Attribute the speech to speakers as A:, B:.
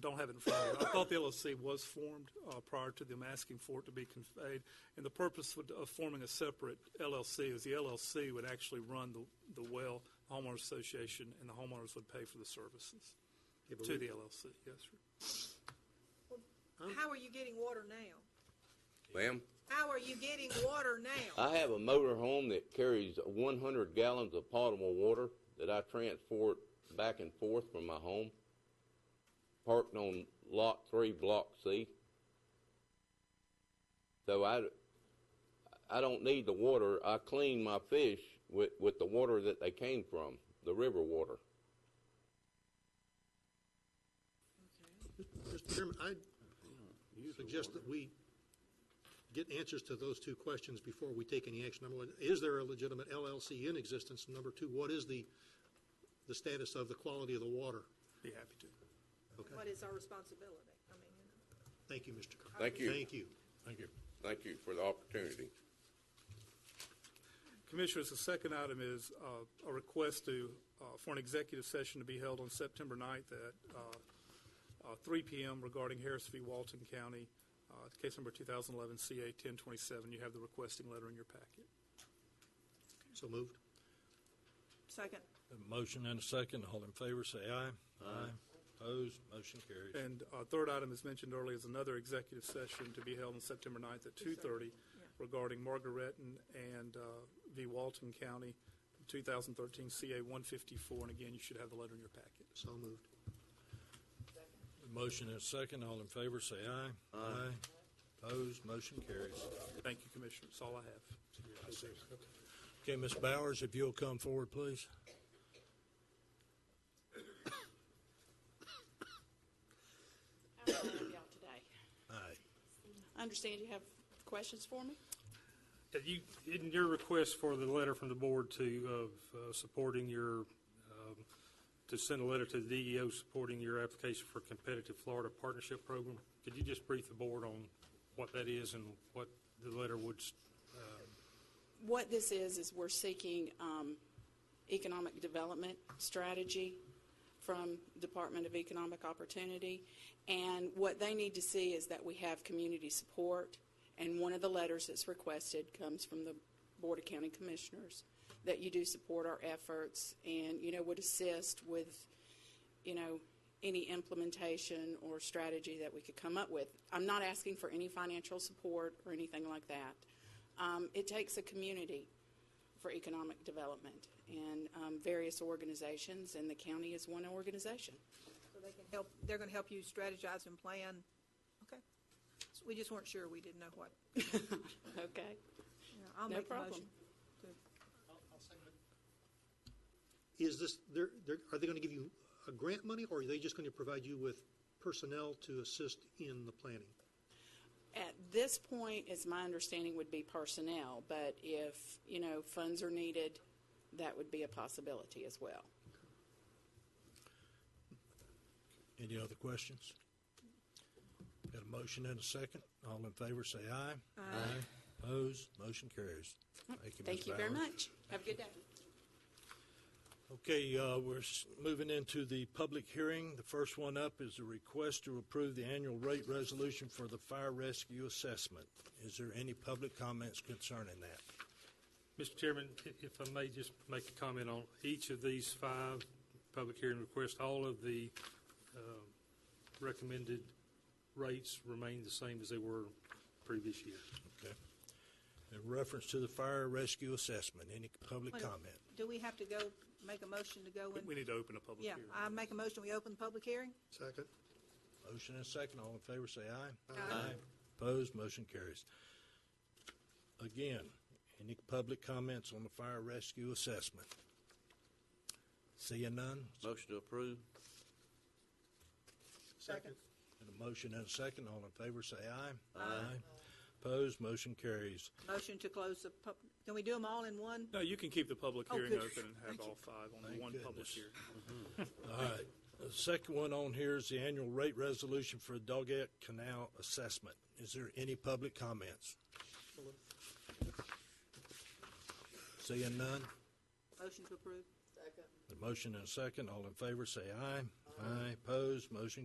A: don't have it in front of me. I thought the LLC was formed uh, prior to them asking for it to be conveyed, and the purpose would- of forming a separate LLC is the LLC would actually run the the well, homeowners association, and the homeowners would pay for the services
B: Yeah, but
A: to
B: we-
A: the LLC, yes, sir.
C: How are you getting water now?
D: Ma'am,
C: How are you getting water now?
D: I have a motor home that carries 100 gallons of potable water that I transport back and forth from my home, parked on Lot 3, Block C. So I, I don't need the water. I clean my fish with, with the water that they came from, the river water.
B: Mr. Chairman, I suggest that we get answers to those two questions before we take any action. Number one, is there a legitimate LLC in existence? And Number two, what is the, the status of the quality of the water?
A: Be happy to.
C: What is our responsibility? I mean, you know.
B: Thank you, Mr. Carter.
D: Thank you.
B: Thank you.
E: Thank you.
D: Thank you for the opportunity.
A: Commissioners, the second item is uh, a request to, uh, for an executive session to be held on September 9th at uh, uh, 3 PM regarding Harris v. Walton County, uh, case number 2011 CA 1027. You have the requesting letter in your packet.
B: So moved.
C: Second,
E: A motion and a second. All in favor, say aye. Aye. Opposed, motion carries.
A: And uh, third item, as mentioned earlier, is another executive session to be held on September 9th at 2:30 regarding Margaretton and uh, v. Walton County, 2013 CA 154. And again, you should have the letter in your packet.
B: So moved.
E: A motion and a second. All in favor, say aye. Aye. Opposed, motion carries.
A: Thank you, Commissioners. That's all I have.
E: Okay, Ms. Bowers, if you'll come forward, please.
F: How are y'all today?
E: Aye.
F: I understand you have questions for me?
G: Yeah, You, in your request for the letter from the board to, of uh, supporting your, um, to send a letter to the DEO supporting your application for competitive Florida partnership program, could you just brief the board on what that is and what the letter would, s-
F: What this is, is we're seeking um, economic development strategy from Department of Economic Opportunity. And what they need to see is that we have community support. And one of the letters that's requested comes from the Board of County Commissioners, that you do support our efforts and, you know, would assist with, you know, any implementation or strategy that we could come up with. I'm not asking for any financial support or anything like that. Um, it takes a community for economic development and um, various organizations, and the county is one organization.
C: so they can help, they're gonna help you strategize and plan. Okay. So We just weren't sure. We didn't know what.
F: Okay.
C: Yeah, I'll
F: No
C: make a
F: problem.
C: motion.
B: Is this, they're, they're, are they going to give you a grant money or are they just going to provide you with personnel to assist in the planning?
F: At this point, as my understanding would be personnel, but if, you know, funds are needed, that would be a possibility as well.
E: Any other questions? Got a motion and a second. All in favor, say aye. Aye. Opposed, motion carries. Thank you, Ms.
F: Thank you very
E: Bowers.
F: much. Have a good day.
E: Okay, uh, we're s- moving into the public hearing. The first one up is a request to approve the annual rate resolution for the fire rescue assessment. Is there any public comments concerning that?
G: Mr. Chairman, i- if I may just make a comment on each of these five public hearing requests, all of the um, recommended rates remain the same as they were previous year.
E: Okay. In reference to the fire rescue assessment, any public
C: Wait a-
E: comment?
C: Do we have to go, make a motion to go
A: We
C: in?
A: need to open a public
C: Yeah,
A: hearing.
C: I make a motion. We open the public hearing?
B: Second.
E: Motion and second, all in favor, say aye. Aye. Opposed, motion carries. Again, any public comments on the fire rescue assessment? Seeing none,
D: Motion to approve?
B: Second.
E: and a motion and a second, all in favor, say aye. Aye. Opposed, motion carries.
C: Motion to close the pub, can we do them all in one?
A: No, you can keep the public
C: Oh,
A: hearing
C: good.
A: open and have all five on the
E: Thank
A: one public
E: goodness.
A: hearing.
E: All right, the second one on here is the annual rate resolution for Doggett Canal Assessment. Is there any public comments? Seeing none,
C: Motion to approve?
E: The motion and a second, all in favor, say aye. Aye. Opposed, motion